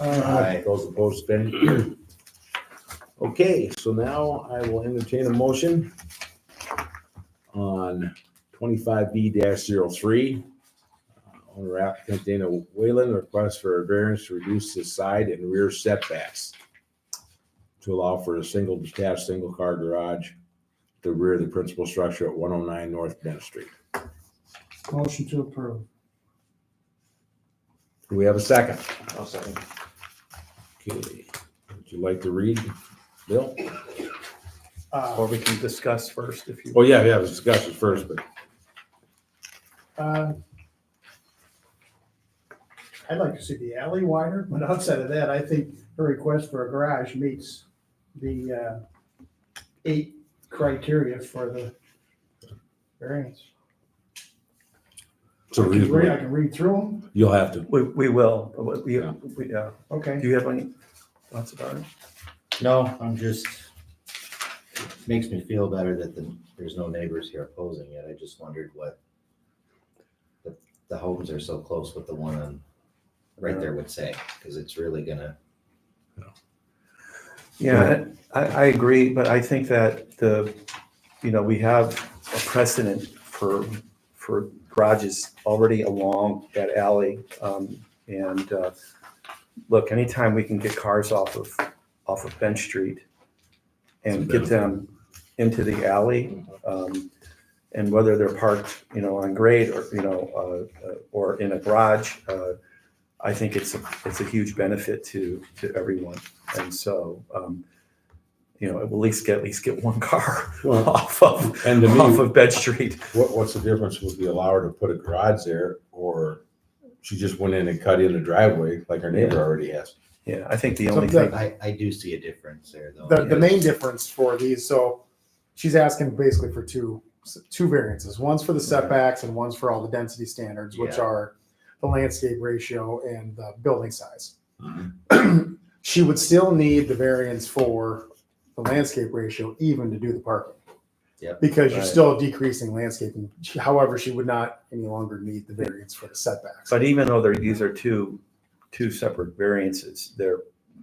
Aye. Those opposed, any? carried. Okay, so now I will entertain a motion on twenty-five B 3 Owner applicant Dana Whalen requests for a variance to reduce the side and rear setbacks to allow for a single detached, single-car garage at the rear of the principal structure at one oh nine North Bennett Street. Motion to approve. Do we have a second? I'll second. Okay, would you like to read, Bill? Uh, Or we can discuss first if you. Oh, yeah, yeah, let's discuss it first, but uh, I'd like to see the alley wider, but outside of that, I think her request for a garage meets the uh, eight criteria for the variance. it's a I can read- reasonable, I can read through them, you'll have to. We, we will, but what we, Yeah. we, yeah. okay. Do you have any thoughts about it? No, I'm just, it makes me feel better that the, there's no neighbors here opposing it. I just wondered what the, the homes are so close with the one on, right there would say, because it's really gonna, Yeah, I, I agree, but I think that the, you know, we have a precedent for, for garages already along that alley. Um, And, uh, look, anytime we can get cars off of, off of Bench Street and get them into the alley, um, and whether they're parked, you know, on grade or, you know, uh, uh, or in a garage, uh, I think it's, a it's a huge benefit to, to everyone. And so, um, you know, it will at least get, at least get one car Well, off of, and to off me, of Bed Street. what, what's the difference? Would we allow her to put a garage there or she just went in and cut in the driveway like our neighbor already has? Yeah, I think the only Something- thing, I, I do see a difference there though. the, the main difference for these, so she's asking basically for two, two variances. One's for the setbacks and one's for all the density standards, which Yeah. are the landscape ratio and the building size. Mhm. She would still need the variance for the landscape ratio even to do the parking. Yep. Because you're Right. still decreasing landscaping. She- However, she would not any longer need the variance for the setbacks. but even though they're, these are two, two separate variances, they're,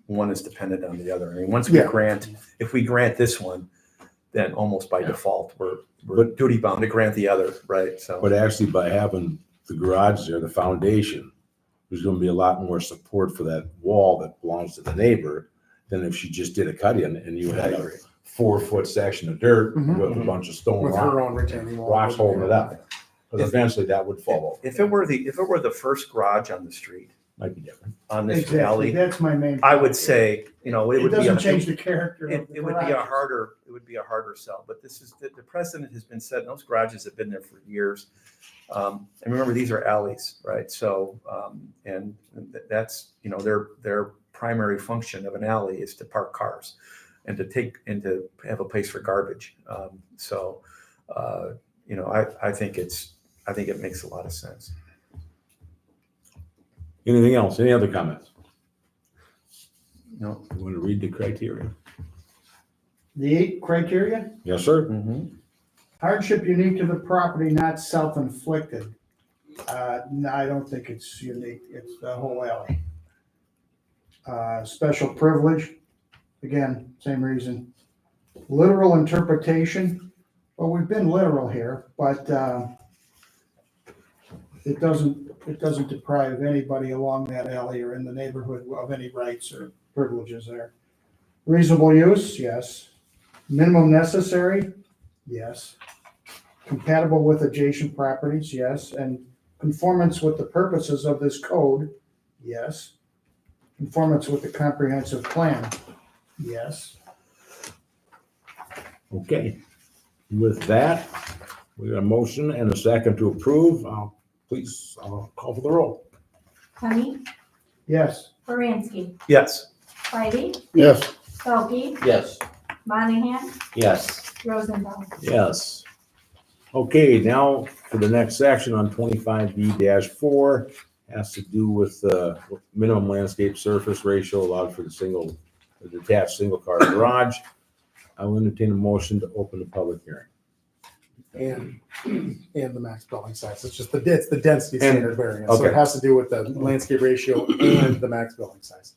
one is dependent on the other. I mean, once we Yeah. grant, if we grant this one, then almost by default, we're, we're But- duty bound to grant the other, right? But So, actually by having the garage there, the foundation, there's gonna be a lot more support for that wall that belongs to the neighbor than if she just did a cut in and you had a four foot section of dirt Mhm. with a bunch of stone With rock- her own retaining wall. rocks holding it up. Because eventually that would fall over. if it were the, if it were the first garage on the street, Might be different. on this Exactly, alley, that's my main. I would say, you know, it It would be. a- doesn't change the character It, of the it would be a garage. harder, it would be a harder sell, but this is, the, the precedent has been set, and those garages have been there for years. Um, and remember, these are alleys, right? So, um, and th- that's, you know, their, their primary function of an alley is to park cars and to take, and to have a place for garbage. Um, so, uh, you know, I, I think it's, I think it makes a lot of sense. Anything else? Any other comments? You know? You want to read the criteria? The eight criteria? Yes, sir. Hardship unique to the property, not self-inflicted. Uh, no, I don't think it's unique. It's the whole alley. Uh, special privilege, again, same reason. Literal interpretation, well, we've been literal here, but, uh, it doesn't, it doesn't deprive anybody along that alley or in the neighborhood of any rights or privileges there. Reasonable use, yes. Minimum necessary, yes compatible with adjacent properties, yes, and conformance with the purposes of this code, yes. Conformance with the comprehensive plan, yes. Okay. With that, we got a motion and a second to approve. Uh, Please, uh, call for the roll. Tony, Yes, Baranski, Yes, Whitey, Yes. Felke, Yes. Monahan, Yes, Rosenbaum. Yes. Okay, now for the next section on twenty-five B four, has to do with uh, minimum landscape surface ratio allowed for the single, the detached single-car garage. I will entertain a motion to open the public hearing. and, and the max building size. It's just the, it's the density And- standard variance. So okay. it has to do with the landscape ratio and the max building size.